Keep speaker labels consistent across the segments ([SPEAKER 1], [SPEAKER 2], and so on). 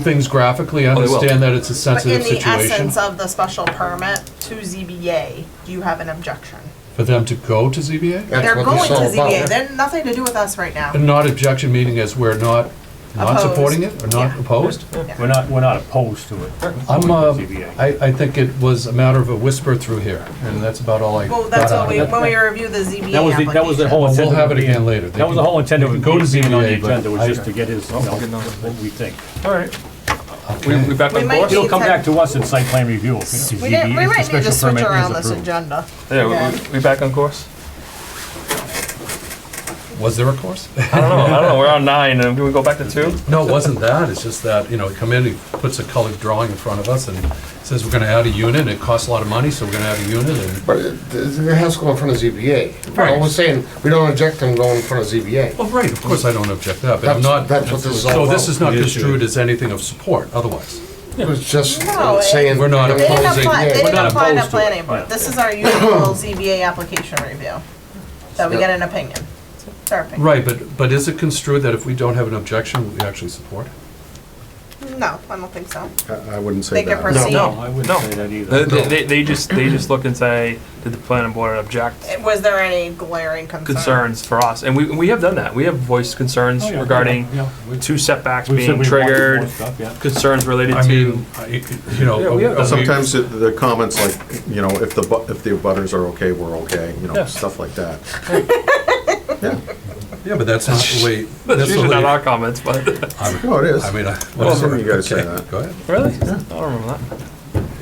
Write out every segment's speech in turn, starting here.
[SPEAKER 1] things graphically, I
[SPEAKER 2] Oh, they will.
[SPEAKER 1] understand that it's a
[SPEAKER 3] But in
[SPEAKER 1] sensitive
[SPEAKER 3] the
[SPEAKER 1] situation
[SPEAKER 3] essence of the special permit to ZBA, do you have an objection?
[SPEAKER 1] for them to go to ZBA?
[SPEAKER 4] That's
[SPEAKER 3] They're
[SPEAKER 4] what
[SPEAKER 3] going
[SPEAKER 4] this
[SPEAKER 3] to
[SPEAKER 4] is all about.
[SPEAKER 3] ZBA, they're nothing to do with us right now.
[SPEAKER 1] And not objection meaning as we're not, not
[SPEAKER 3] Opposed.
[SPEAKER 1] supporting it or not
[SPEAKER 3] Yeah.
[SPEAKER 1] opposed?
[SPEAKER 5] We're not, we're not opposed to it.
[SPEAKER 1] I'm, uh,
[SPEAKER 5] ZBA.
[SPEAKER 1] I, I think it was a matter of a whisper through here, and that's about all I
[SPEAKER 3] Well,
[SPEAKER 1] got
[SPEAKER 3] that's what
[SPEAKER 1] out
[SPEAKER 3] we,
[SPEAKER 1] of it.
[SPEAKER 3] when we review the ZBA
[SPEAKER 5] That was, the-
[SPEAKER 3] application.
[SPEAKER 5] that was the whole
[SPEAKER 1] Well,
[SPEAKER 5] intent.
[SPEAKER 1] We'll have
[SPEAKER 5] of
[SPEAKER 1] it
[SPEAKER 5] being-
[SPEAKER 1] again later. They
[SPEAKER 5] That was the
[SPEAKER 1] can-
[SPEAKER 5] whole intent
[SPEAKER 1] they
[SPEAKER 5] of
[SPEAKER 1] can
[SPEAKER 5] it
[SPEAKER 1] go to
[SPEAKER 5] being on the
[SPEAKER 1] ZBA, but
[SPEAKER 5] agenda, was
[SPEAKER 1] I-
[SPEAKER 5] just to get his, you know,
[SPEAKER 2] good enough.
[SPEAKER 5] what we think.
[SPEAKER 2] All right. We, we back
[SPEAKER 3] We
[SPEAKER 2] on
[SPEAKER 3] might
[SPEAKER 2] course?
[SPEAKER 3] need-
[SPEAKER 5] It'll come back to us in site plan review. if the
[SPEAKER 3] We didn't, we
[SPEAKER 5] ZBA
[SPEAKER 3] might need to
[SPEAKER 5] special
[SPEAKER 3] switch
[SPEAKER 5] permit is
[SPEAKER 3] around this
[SPEAKER 5] approved.
[SPEAKER 3] agenda.
[SPEAKER 2] Yeah,
[SPEAKER 3] Yeah.
[SPEAKER 2] we- we, we back on course?
[SPEAKER 1] Was there a course?
[SPEAKER 2] I don't know, I don't know, we're on nine, and do we go back to two?
[SPEAKER 1] No, it wasn't that, it's just that, you know, he come in, he puts a colored drawing in front of us and says, we're gonna add a unit, it costs a lot of money, so we're gonna add a unit, and,
[SPEAKER 4] But it it has to go in front of ZBA. All we're saying, we don't object them going in front of ZBA.
[SPEAKER 1] well, right, of course I don't object to that, but I'm
[SPEAKER 4] That's-
[SPEAKER 1] not.
[SPEAKER 4] that's what this is all
[SPEAKER 1] So this
[SPEAKER 4] about.
[SPEAKER 1] is not
[SPEAKER 5] The issue.
[SPEAKER 1] construed as anything of support, otherwise.
[SPEAKER 4] It was just
[SPEAKER 3] No, it-
[SPEAKER 4] saying.
[SPEAKER 1] We're not
[SPEAKER 3] They didn't
[SPEAKER 1] Opposing.
[SPEAKER 3] apply, they
[SPEAKER 1] We're
[SPEAKER 3] didn't
[SPEAKER 1] not
[SPEAKER 3] apply to
[SPEAKER 1] opposed to it.
[SPEAKER 3] planning board, this is our usual ZBA application review, that we
[SPEAKER 4] Yeah.
[SPEAKER 3] get an opinion. It's our opinion.
[SPEAKER 1] Right, but, but is it construed that if we don't have an objection, we actually support?
[SPEAKER 3] No, I don't think so.
[SPEAKER 6] I I wouldn't
[SPEAKER 3] They
[SPEAKER 6] say
[SPEAKER 3] can
[SPEAKER 6] that.
[SPEAKER 3] proceed.
[SPEAKER 5] I wouldn't
[SPEAKER 2] No.
[SPEAKER 5] say that either.
[SPEAKER 2] They, they- they, they just, they just look and say, did the planning board object
[SPEAKER 3] Was there any glaring concern?
[SPEAKER 2] concerns for us? And we, we have done that, we have voiced concerns
[SPEAKER 5] Oh, yeah,
[SPEAKER 2] regarding
[SPEAKER 5] yeah, we-
[SPEAKER 2] two setbacks
[SPEAKER 5] we said
[SPEAKER 2] being
[SPEAKER 5] we wanted more
[SPEAKER 2] triggered,
[SPEAKER 5] stuff, yeah.
[SPEAKER 2] concerns related
[SPEAKER 1] I
[SPEAKER 2] to,
[SPEAKER 1] mean, I- you
[SPEAKER 2] Yeah,
[SPEAKER 1] know.
[SPEAKER 2] we have
[SPEAKER 1] are we-
[SPEAKER 6] Sometimes it- the comments like, you know, if the, bu- if the butters are okay, we're okay, you know,
[SPEAKER 2] Yeah.
[SPEAKER 6] stuff like that. Yeah,
[SPEAKER 1] Yeah, but that's not the way.
[SPEAKER 2] that's
[SPEAKER 1] the
[SPEAKER 2] usually
[SPEAKER 1] way-
[SPEAKER 2] not our comments, but,
[SPEAKER 6] no, Oh, it is.
[SPEAKER 1] I mean, I.
[SPEAKER 6] Well, some of you guys say
[SPEAKER 1] okay,
[SPEAKER 6] that.
[SPEAKER 1] Go ahead.
[SPEAKER 2] really? I don't remember that.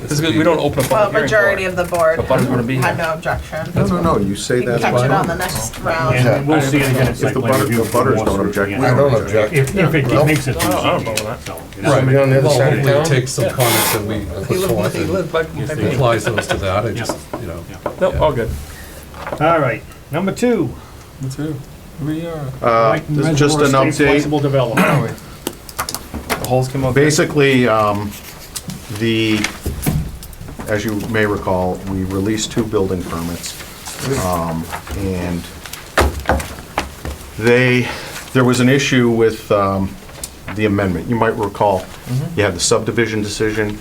[SPEAKER 2] This is, good, we don't open a
[SPEAKER 3] Well,
[SPEAKER 2] public
[SPEAKER 3] majority
[SPEAKER 2] hearing
[SPEAKER 3] of the board
[SPEAKER 2] But butters wanna be
[SPEAKER 3] had
[SPEAKER 2] here.
[SPEAKER 3] no objection.
[SPEAKER 6] No, no, no, you
[SPEAKER 3] We
[SPEAKER 6] say
[SPEAKER 3] can
[SPEAKER 6] that.
[SPEAKER 3] catch it on the
[SPEAKER 6] fine.
[SPEAKER 3] next round.
[SPEAKER 5] And we'll see it again at site
[SPEAKER 6] If the
[SPEAKER 5] plan
[SPEAKER 6] butter-
[SPEAKER 5] review.
[SPEAKER 6] the butters
[SPEAKER 5] if we
[SPEAKER 6] don't
[SPEAKER 5] want to,
[SPEAKER 6] object,
[SPEAKER 5] yeah.
[SPEAKER 6] we
[SPEAKER 4] I don't object.
[SPEAKER 5] If, if it makes it.
[SPEAKER 2] I don't- I don't
[SPEAKER 5] through
[SPEAKER 2] know about
[SPEAKER 5] ZBA, so, you know.
[SPEAKER 1] Right,
[SPEAKER 4] Somebody on the other
[SPEAKER 1] well,
[SPEAKER 4] side of
[SPEAKER 1] hopefully
[SPEAKER 4] town?
[SPEAKER 1] take some comments that we put forth
[SPEAKER 2] for
[SPEAKER 1] and
[SPEAKER 2] that.
[SPEAKER 5] Yes, they
[SPEAKER 2] Like,
[SPEAKER 1] applies those to that, I just, you know.
[SPEAKER 2] No, all good.
[SPEAKER 5] All right, number two.
[SPEAKER 6] Uh,
[SPEAKER 5] Mike
[SPEAKER 6] this is Just an
[SPEAKER 5] Mesereau, State
[SPEAKER 6] update.
[SPEAKER 5] Flexible development.
[SPEAKER 2] The holes came up.
[SPEAKER 6] Basically, um, the, as you may recall, we released two building permits. um, And they, there was an issue with um, the amendment. You might recall, you had the subdivision decision,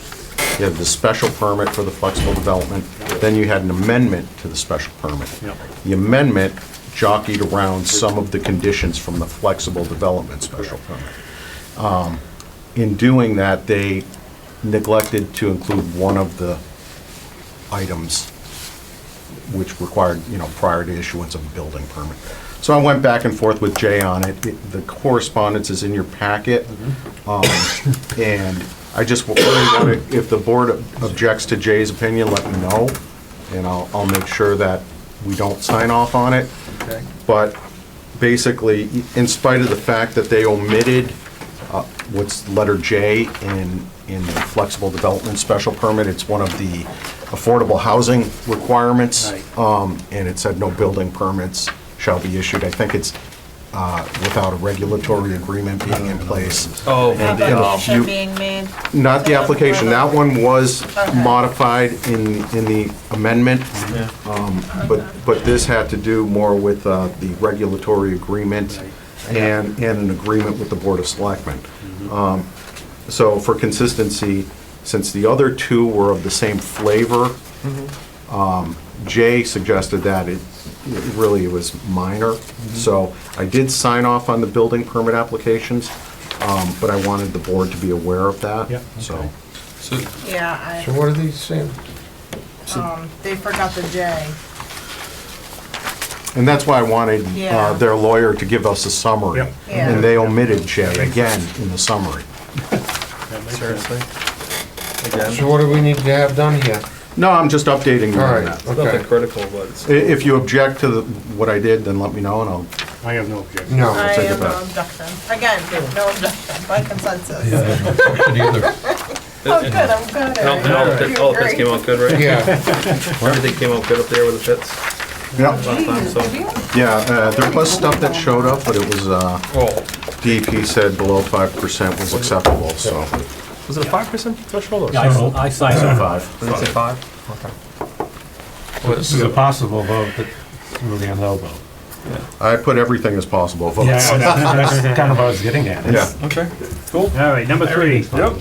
[SPEAKER 6] you had the special permit for the flexible development, then you had an amendment to the special permit.
[SPEAKER 5] Yep.
[SPEAKER 6] The amendment jockeyed around some of the conditions from the flexible development special permit in doing that, they neglected to include one of the items which required, you know, prior to issuance of a building permit. So I went back and forth with Jay on it. It- The correspondence is in your packet. Um, And I just, wa- really wanna- if the board objects to Jay's opinion, let me know, and I'll, I'll make sure that we don't sign off on it. But basically, in spite of the fact that they omitted uh, what's letter J in, in the flexible development special permit. It's one of the affordable housing requirements.
[SPEAKER 5] Right.
[SPEAKER 6] Um, And it said no building permits shall be issued. I think it's uh, without a regulatory agreement being in place.
[SPEAKER 2] Oh, for
[SPEAKER 6] And,
[SPEAKER 2] the,
[SPEAKER 6] you know,
[SPEAKER 2] um,
[SPEAKER 6] you-
[SPEAKER 3] being made.
[SPEAKER 6] Not the application. That one was
[SPEAKER 3] Okay.
[SPEAKER 6] modified in, in the amendment. Um, But, but this had to do more with uh, the regulatory agreement and, and an agreement with the Board of Selectmen.
[SPEAKER 5] Mm-hmm.
[SPEAKER 6] Um, So for consistency, since the other two were of the same flavor,
[SPEAKER 5] Mm-hmm.
[SPEAKER 6] um, Jay suggested that it, it really was minor.
[SPEAKER 5] Mm-hmm.
[SPEAKER 6] So I did sign off on the building permit applications, um, but I wanted the board to be aware of that,
[SPEAKER 5] Yep, okay.
[SPEAKER 6] so.
[SPEAKER 3] Yeah,
[SPEAKER 4] So what are these saying?
[SPEAKER 3] I, um, they forgot the J.
[SPEAKER 6] And that's why I wanted
[SPEAKER 3] Yeah.
[SPEAKER 6] uh, their lawyer to give us a summary.
[SPEAKER 5] Yep.
[SPEAKER 3] Yeah.
[SPEAKER 6] And they omitted Jay again in the summary.
[SPEAKER 2] seriously.
[SPEAKER 4] So what do we need to have done here?
[SPEAKER 6] No, I'm just updating you
[SPEAKER 4] All
[SPEAKER 6] on
[SPEAKER 4] right,
[SPEAKER 6] that.
[SPEAKER 2] Nothing
[SPEAKER 4] okay.
[SPEAKER 2] critical, but it's.
[SPEAKER 6] I- If you object to the- what I did, then let me know and I'll,
[SPEAKER 5] I have no objection.
[SPEAKER 4] No,
[SPEAKER 3] I
[SPEAKER 6] take it
[SPEAKER 3] have no
[SPEAKER 6] back.
[SPEAKER 3] objection. Again, no objection, by consensus.
[SPEAKER 1] Yeah, I don't object either.
[SPEAKER 3] Oh, good, I'm good.
[SPEAKER 2] And all, and all the pits, all the pits came out good, right?
[SPEAKER 4] yeah,
[SPEAKER 2] Everything came out good up there with the pits
[SPEAKER 6] yeah,
[SPEAKER 2] last time, so.
[SPEAKER 6] yeah, uh, there was stuff that showed up, but it was, uh,
[SPEAKER 2] Oh,
[SPEAKER 6] DEP said below 5% was acceptable, so.
[SPEAKER 2] was it a five percent threshold or?
[SPEAKER 5] Yeah, I s- I signed off on
[SPEAKER 6] Five.
[SPEAKER 2] Did it say five?
[SPEAKER 7] This is a possible vote, but it's really a no vote.
[SPEAKER 6] I put everything as possible votes.
[SPEAKER 5] that's kind of what I was getting at.
[SPEAKER 6] Yeah.
[SPEAKER 2] All right, number three. Yep.